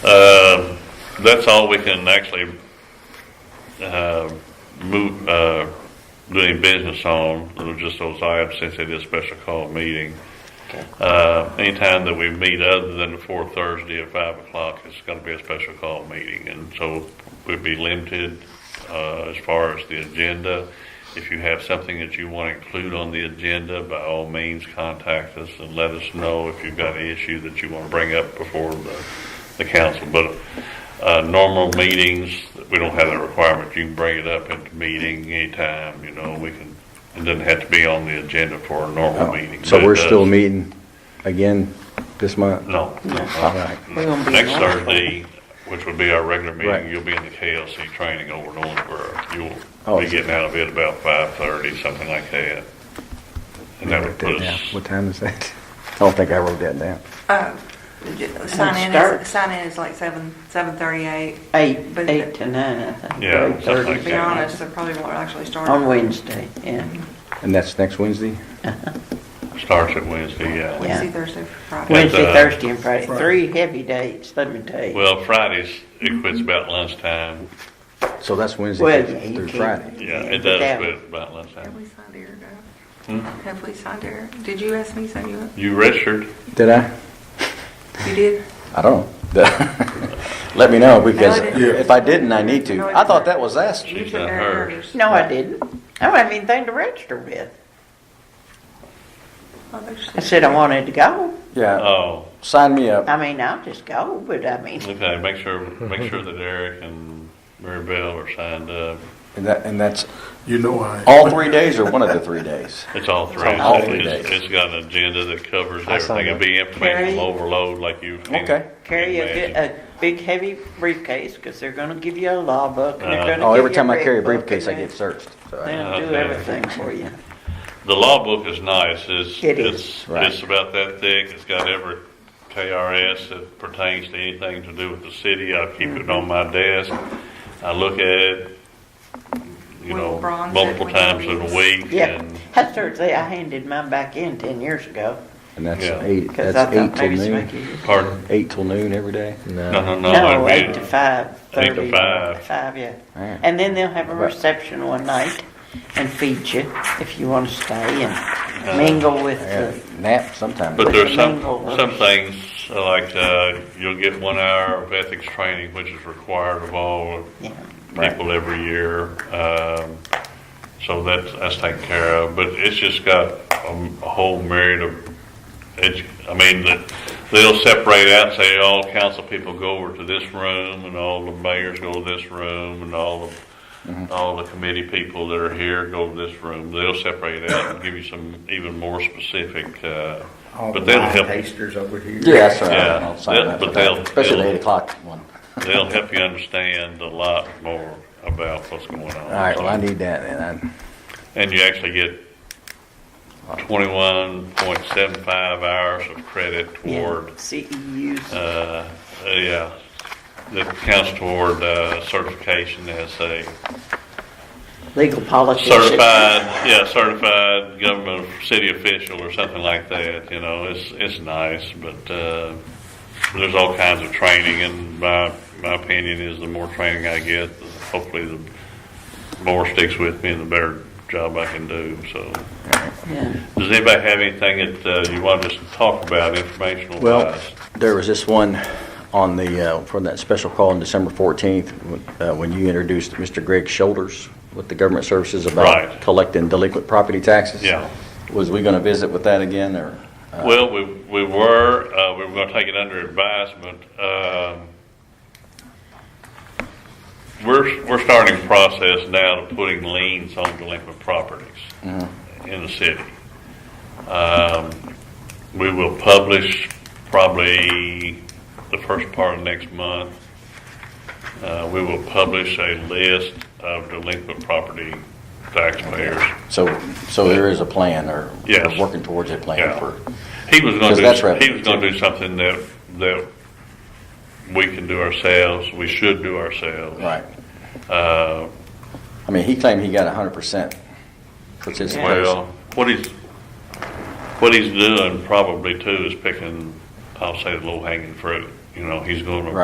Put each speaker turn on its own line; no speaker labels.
Um, that's all we can actually, uh, move, uh, do any business on, It was just those items since it is a special call meeting.
Okay.
Uh, anytime that we meet other than the fourth Thursday at five o'clock, it's gonna be a special call meeting, and so we'd be limited, uh, as far as the agenda. If you have something that you wanna include on the agenda, by all means, contact us and let us know if you've got an issue that you wanna bring up before the, the council. But, uh, normal meetings, we don't have that requirement, you can bring it up at the meeting anytime, you know, we can, it doesn't have to be on the agenda for a normal meeting. but
Oh, So
it
we're still
does-
meeting again this month?
no.
All right.
We're gonna be
Next
on.
Thursday, which would be our regular
Right.
meeting, you'll be in the KLC training over in Owensboro. You'll
Oh.
be getting out of it about five thirty, something like that. And that would put
Yeah.
us,
What time is that? I don't think I wrote that down.
Sign in
Start.
is, sign in is like seven, seven thirty-eight.
Eight,
But-
eight to nine, I think.
Yeah,
Eight
something
thirty
like
To be
that.
honest, they probably won't actually start.
On Wednesday, yeah.
And that's next Wednesday?
starts at Wednesday, yeah.
Wednesday, Thursday, Friday.
Wednesday,
uh,
Thursday, and Friday, three heavy dates, let me tell you.
Well, Fridays, it quits about lunchtime.
So that's Wednesday
Well,
through-
yeah, you
through
can-
Friday.
Yeah, it
but
does
that-
quit about
Have
lunchtime.
we signed Eric up?
Hmm?
Have we signed Eric? Did you ask me something? You
You registered?
Did I?
you did?
I don't know. Let me know because
No, I didn't.
if I didn't, I need to. I thought that was asked.
You
She's
took
not
Eric
hers.
hers.
No, I didn't. I don't have anything to register with.
Oh, there's-
I said I wanted to go.
Yeah,
Oh,
sign me up.
I mean, I'll just go, but I mean,
okay, make sure, make sure that Eric and Mary Bell are signed up.
And that, and that's
You know I.
all three days or one of the three days?
It's all three.
all three
It's-
days.
It's got an agenda that covers
I signed
everything. It'll be information
Carry-
overload like you. can
Okay.
carry a, bi-
imagine.
a big heavy briefcase, because they're gonna give you a law book, and they're
Uh-huh. Uh,
gonna give you a
Oh, every time I carry a
red book,
briefcase, I
and
get searched. So I-
They'll do
Okay.
everything for you.
The law book is nice. It's,
It is.
it's,
Right.
it's about that thick. It's got every KRS that pertains to anything to do with the city. I keep it on my desk. I look at it, you
Will
know,
Bronze
multiple
it when
times
he
in
leaves.
a week
Yeah,
and
that's Thursday, I handed mine back in ten years ago,
And that's
Yeah.
eight,
because I
that's eight
thought
till
maybe somebody
noon,
could.
pardon.
eight till noon every day?
No, no, no. it'd
No,
be-
eight to five,
Eight to
thirty.
five.
Five, yeah.
Alright.
And then they'll have a
Right.
reception one night and feed you if you want to stay
Uh,
and mingle with
Yeah,
the,
Nap sometime.
But there's some,
Mingle.
some things, uh, like, uh, you'll get one hour of ethics training, which is required of all
you know.
Right.
people every year. Um, so that's, that's taken care of, but it's just got a, a whole myriad of, edu- I mean, that they'll separate out, say all council people go over to this room and all the mayors go to this room and all
Mm-hmm.
the, all the committee people that are here go to this room. They'll separate out and give you some even more specific, uh, but they'll help.
over here.
Yeah, that's right.
Yeah.
I'll sign
Yeah,
up
but
for that.
they'll-
Especially the
they'll-
eight o'clock one.
They'll help you understand a lot more about what's going on.
All right, well, I need that then.
And you actually get twenty-one point seven five hours of credit
yeah, E
toward,
CEUs.
uh, yeah, that counts toward, uh, certification as a
Legal politicians.
certified, yeah, certified government, or city official or something like that, you know, it's, it's nice, but, uh, there's all kinds of training and my, my opinion is the more training I get, hopefully the more sticks with me and the better job I can do, so.
Yeah.
Does anybody have anything that uh, you want us to talk about informational
Well,
wise?
There was this one on the, uh, from that special call on December 14th, uh, when you introduced Mr. Greg Shoulders with the government services
Right.
about collecting delinquent property taxes.
Yeah.
Was we going to visit with that again, or? uh,
Well, we, we were, uh, we were gonna take it under advisement, um, we're, we're starting a process now to putting liens on delinquent properties in the city. Um, we will publish probably the first part of next month. Uh, we will publish a list of delinquent property taxpayers.
So, so there is a plan, or
Yes.
we're working towards a plan
Yeah.
for,
He was going
Because
to
that's
do,
right.
he was going to do something that, that we can do ourselves, we should do ourselves.
right.
Uh,
I mean, he claimed he got 100% participation.
well, what he's, what he's doing probably too is picking, I'll say, the low hanging fruit. You know, he's going to